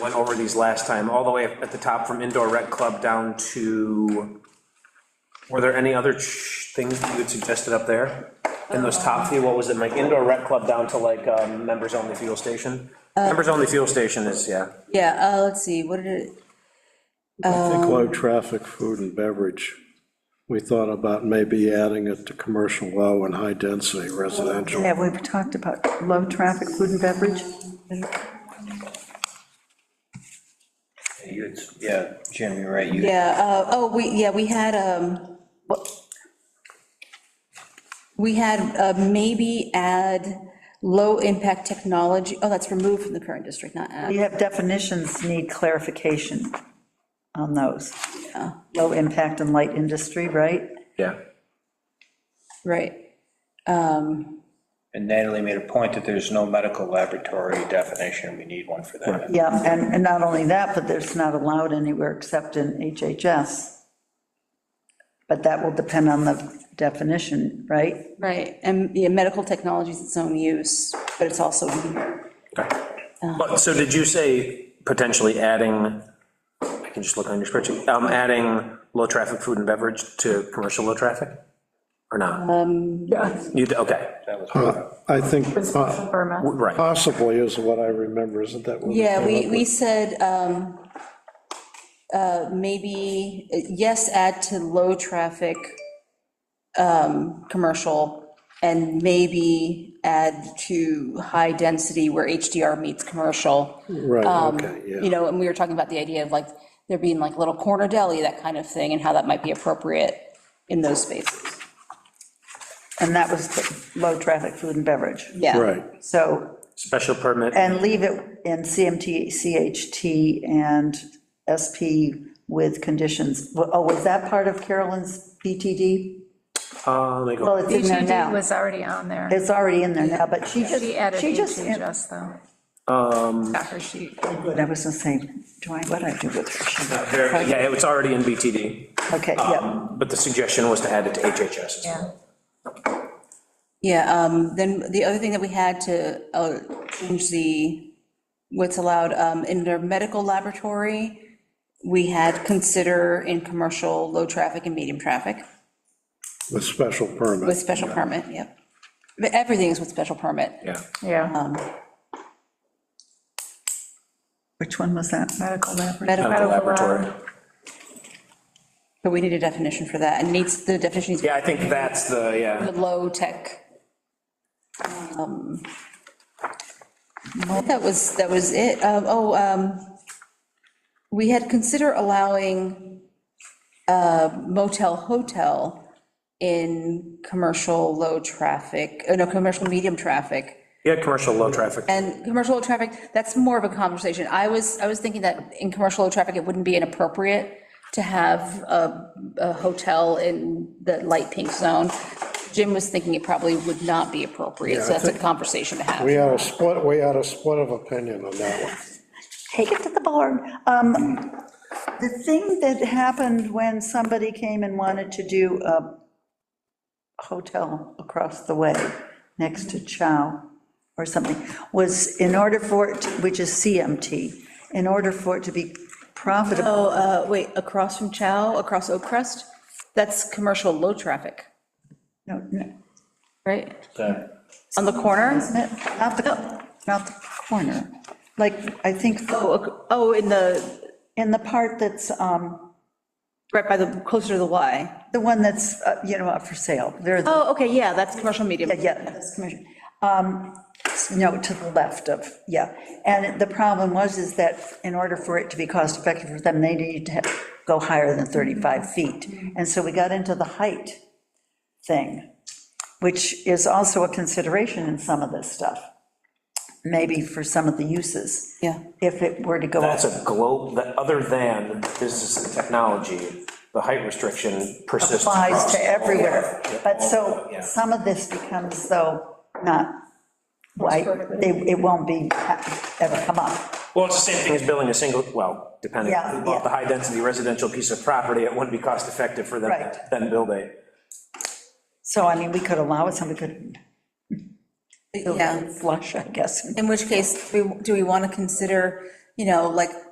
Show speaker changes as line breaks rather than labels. went over these last time, all the way at the top from indoor rec club down to, were there any other ch- things that you had suggested up there? In those top few, what was it, like indoor rec club down to like, um, members only fuel station? Members only fuel station is, yeah,
Yeah, uh, let's see, what did it,
I think low traffic, food and beverage. We thought about maybe adding it to commercial low and high density residential.
Yeah, we've talked about low traffic food and beverage.
You- Yeah, Jim, you're right, you,
yeah, uh, oh, we, yeah, we had, um, what- we had uh, maybe add low-impact technology, oh, that's removed from the current district, not add.
You have definitions need clarification on those. Low impact and light industry, right?
yeah.
Right.
and Natalie made a point that there's no medical laboratory definition, we need one for that.
Yeah, and, and not only that, but it's not allowed anywhere except in HHS. But that will depend on the definition, right?
Right, and, yeah, medical technology is its own use, but it's also in here.
But, so did you say potentially adding, I can just look on your spreadsheet, um, adding low-traffic food and beverage to commercial low traffic? Or not? Um. You, d- okay,
That was one of
I think po-
Burma.
right,
possibly is what I remember, isn't that what we
Yeah,
came
we,
up
we
with?
said, um, uh, maybe, uh, yes, add to low-traffic, um, commercial, and maybe add to high-density where HDR meets commercial. Um,
Right, okay,
You
yeah.
know, and we were talking about the idea of like, there being like little corner deli, that kind of thing, and how that might be appropriate in those spaces.
And that was the low traffic food and beverage.
Yeah.
Right,
So,
special permit,
and leave it in CMT, CHT, and SP with conditions. Oh, was that part of Carolyn's BTD?
uh, let me go.
Well, it's in there
HED
now.
E was already on there.
It's already in there now, but she just,
She added E
she just,
HHS
I
though. Um. Got her sheet.
was gonna say, do I, what I do with her?
There- Yeah, it's already in BTD,
Okay, yeah,
but the suggestion was to add it to HHS. as well.
Yeah.
Yeah, um, then the other thing that we had to uh, change the, what's allowed um, in their medical laboratory, we had consider in commercial, low traffic and medium traffic
with special
with
permit.
special permit, yep. But everything is with special permit.
Yeah,
Oh.
Yeah.
which one was that? Uh,
Medical
Medical,
laboratory.
medical
Medical lab.
laboratory.
but we need a definition for that, and needs, the definition needs to
Yeah, I think that's the, yeah,
be low tech. Um, I think That was, that was it. Um, Oh, um, we had consider allowing uh, motel, hotel in commercial low traffic, uh, no, commercial medium traffic.
yeah, commercial low traffic.
And commercial low traffic, that's more of a conversation. I was, I was thinking that in commercial low traffic, it wouldn't be inappropriate to have a, a hotel in the light pink zone. Jim was thinking it probably would not be appropriate, so
Yeah, I
that's a
think-
conversation to have.
We had a split, we had a split of opinion on that one.
Take it to the board. Um, The thing that happened when somebody came and wanted to do a hotel across the way, next to Chow or something, was in order for it, to- which is CMT, in order for it to be profitable,
Oh, uh, wait, across from Chow, across Oak Crest, that's commercial low traffic,
no, no,
right?
the-
On the corner?
not the, not the corner, like, I think,
Oh, ac- oh, in the,
in the part that's, um,
right by the, closer to the Y.
the one that's, uh, you know, up for sale, there,
Oh, okay, yeah, that's commercial medium.
yeah, that's commercial. Um, No, to the left of, yeah. And the problem was is that in order for it to be cost effective for them, they needed to have- go higher than 35 feet. And so we got into the height thing, which is also a consideration in some of this stuff, maybe for some of the uses.
Yeah.
If it were to go up.
That's a globe, that other than business and technology, the height restriction persists.
applies
across
to
all-
everywhere.
yeah,
But
all-
so
yeah.
some of this becomes though not, like, they, it won't be, ever come up.
Well, it's the same thing as building a single, well, depending,
Yeah,
if you bought the
yeah.
high-density residential piece of property, it wouldn't be cost-effective for them to
Right.
then build a.
So I mean, we could allow it, somebody could
Yeah.
flush, I guess.
In which case, we- do we want to consider you know, like